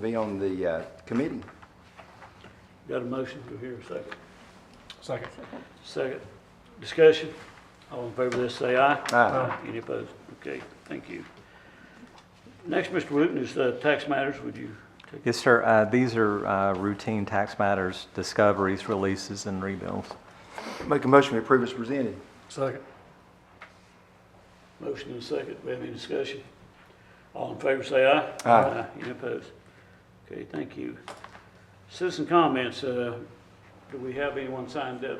be on the uh, committee. Got a motion, to hear a second? Second. Second, discussion, all in favor of this, say aye. Uh, Aye. Any opposed? Okay, thank you. Next, Mr. Wooten, is uh, tax matters, would you take? Yes, sir. Uh, These are uh, routine tax matters, discoveries, releases, and rebills. Make a motion to approve as presented. Second. Motion and a second, we have any discussion? All in favor, say aye. Aye. Any opposed? Okay, thank you. Citizen comments, uh, do we have anyone signed up?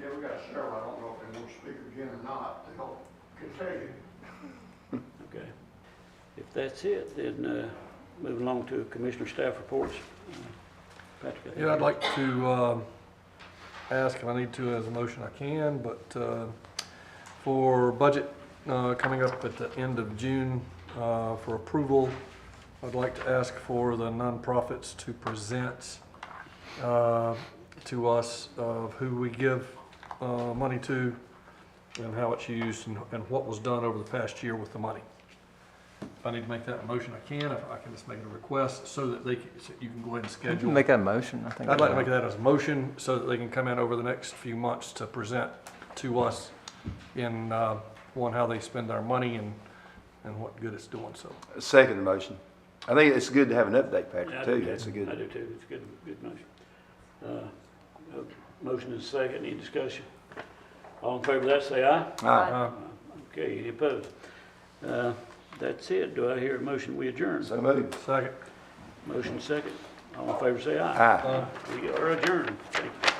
Yeah, we got several, I don't know if they want to speak again or not, they'll continue. Okay. If that's it, then uh, move along to Commissioner Staff Reports. Uh, Patrick, I think- Yeah, I'd like to um, ask, if I need to as a motion I can, but uh, for budget uh, coming up at the end of June uh, for approval, I'd like to ask for the nonprofits to present uh, to us of who we give uh, money to and how it's used and and what was done over the past year with the money. If I need to make that a motion, I can. If I can just make a request so that they, can- so you can go ahead and You schedule. can Make that motion, I think. I'd like to make that as a motion so that they can come in over the next few months to present to us in, uh, one, how they spend our money and, and what good it's doing, so. Second motion. I think it's good to have an update, Yeah, I Patrick, do too. too. That's a I good, do too, it's a good, good motion. Uh, a Motion is second, any discussion? All in favor of that, say aye. aye. Uh, Okay, any opposed? Uh, That's it, do I hear a motion, we adjourn? So moved. Second. Motion second, all in favor, say aye. Aye. Uh, We are adjourned, thank you.